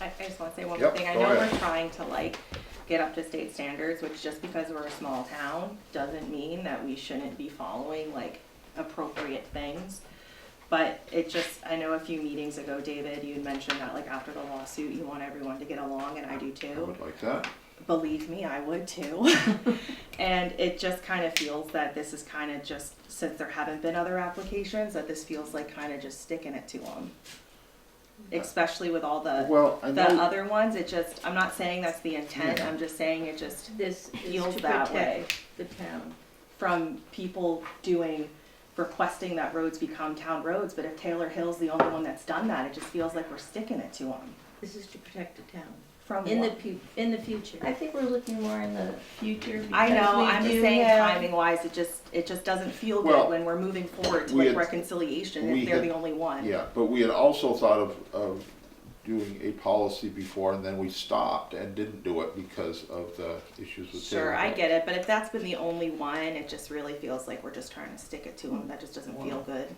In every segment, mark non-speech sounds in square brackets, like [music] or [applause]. I just wanna say one more Yep, thing, I go know ahead. we're trying to like get up to state standards, which just because we're a small town doesn't mean that we shouldn't be following like appropriate things. But it just, I know a few meetings ago, David, you had mentioned that like after the lawsuit, you want everyone to get along and I do I too. would like that. believe me, I [laughs] would too. and it just kind of feels that this is kind of just, since there haven't been other applications, that this feels like kind of just sticking it to them. Especially with all the, Well, I the know, Uh, other ones, it just, I'm not saying that's the intent, I'm just saying it just This is feels to that way. protect the town. From people doing, requesting that roads become town roads, but if Taylor Hill's the only one that's done that, it just feels like we're sticking it to them. This is to protect the town From in the what? pu- in the future. I think we're looking more in the future. I because know, we I'm do just saying have- timing wise, it just, it just doesn't feel Well, good when we're moving forward to we like had- reconciliation we if they're had- the only one. yeah, but we had also thought of, of doing a policy before and then we stopped and didn't do it because of the issues with Taylor. Sure, I Hill. get it, but if that's been the only one, it just really feels like we're just trying to stick it to them, that just doesn't feel good.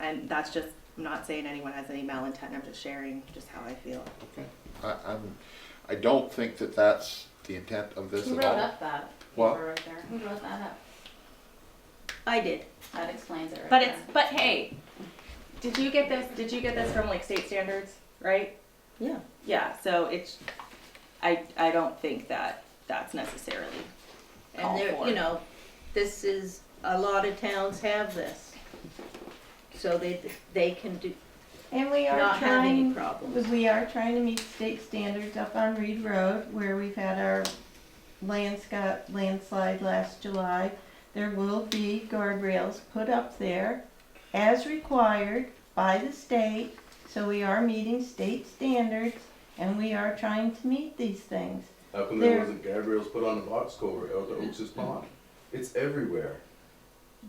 And that's just, I'm not saying anyone has any malintent, I'm just sharing just how I feel. Okay. I, I'm, I don't think that that's the intent of this Who at wrote all. up that? What? paper Right there. Who wrote that up? I did, That explains it right but it's, there. but hey, did you get this, did you get this from like state standards, right? Yeah. Yeah, so it's, I, I don't think that that's necessarily And called there, for. you know, this is, a lot of towns have this. So they, they can do, And we are not have any trying, problems. we are trying to meet state standards up on Reed Road where we've had our landscape landslide last July. There will be guardrails put up there as required by the state. So we are meeting state standards and we are trying to meet these things. How come there There- wasn't Gabriel's put on the box cover or the Oaks' pond? It's everywhere.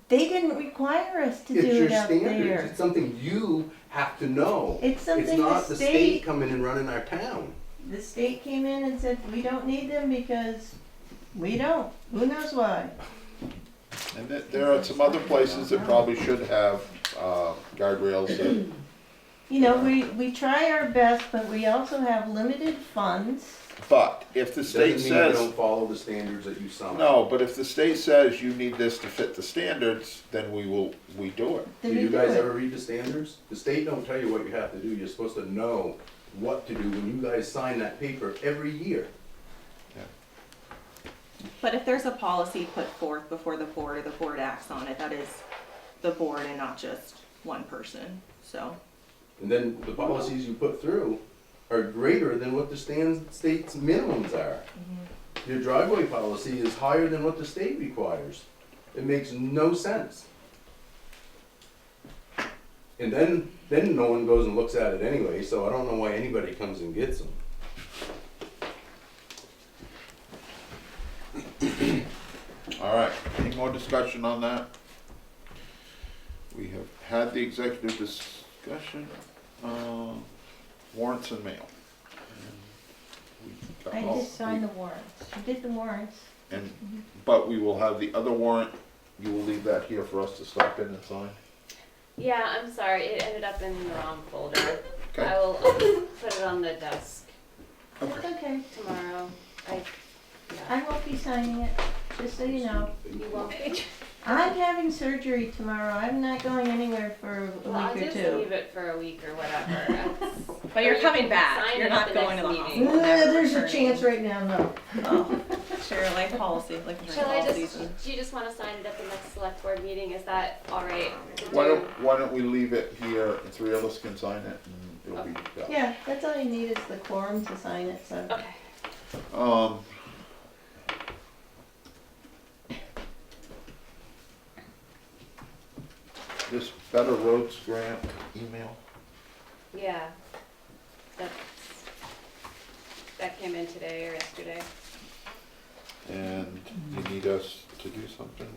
They didn't require us to it's do your it up standards. there. It's something you have to know. It's something not the the state state- coming and running our town. The state came in and said, we don't need them because we don't, who knows why? And there- there are some other places that probably should have, uh, guardrails that You know, we, we try our best, but we also have limited funds. But if the state Doesn't mean you says, don't follow the standards that you signed. no, but if the state says you need this to fit the standards, then we will, we do it. that Do we you guys it. ever read the standards? The state don't tell you what you have to do. You're supposed to know what to do when you guys sign that paper every year. But if there's a policy put forth before the board or the board acts on it, that is the board and not just one person, so. And then the policies you put through are greater than what the stan- state's minimums are. Your driveway policy is higher than what the state requires. It makes no sense. And then, then no one goes and looks at it anyway, so I don't know why anybody comes and gets them. All right, any more discussion on that? We have had the executive discussion, uh, warrants and mail. We got I all- just signed the Mm-hmm. warrants, I did the warrants. And, but we will have the other warrant, you will leave that here for us to stop in and sign. Yeah, I'm sorry. It ended up in the wrong folder. I Okay, will um, put it on the desk It's okay, tomorrow. I, yeah. I won't be signing it, just so you know. You won't. I'm having surgery tomorrow, I'm not going anywhere for [laughs] a Well, I'll week or just two. leave it for a week or [laughs] whatever. That's- But you're or you coming can back. sign You're it not at going to the next hospital. Uh, meeting. There's a chance right now, no. Oh. [laughs] Sure, like policy, like your Shall I policies. just, do you just want to sign it at the next select board meeting? Is that all right? to why do? don't, why don't we leave it here, the three of us can sign it, and it'll be done. Yeah, that's all you need is the quorum to sign it, so. Okay. Um. This Better Roads Grant email, Yeah. That's, that came in today or yesterday. and you need us to do something?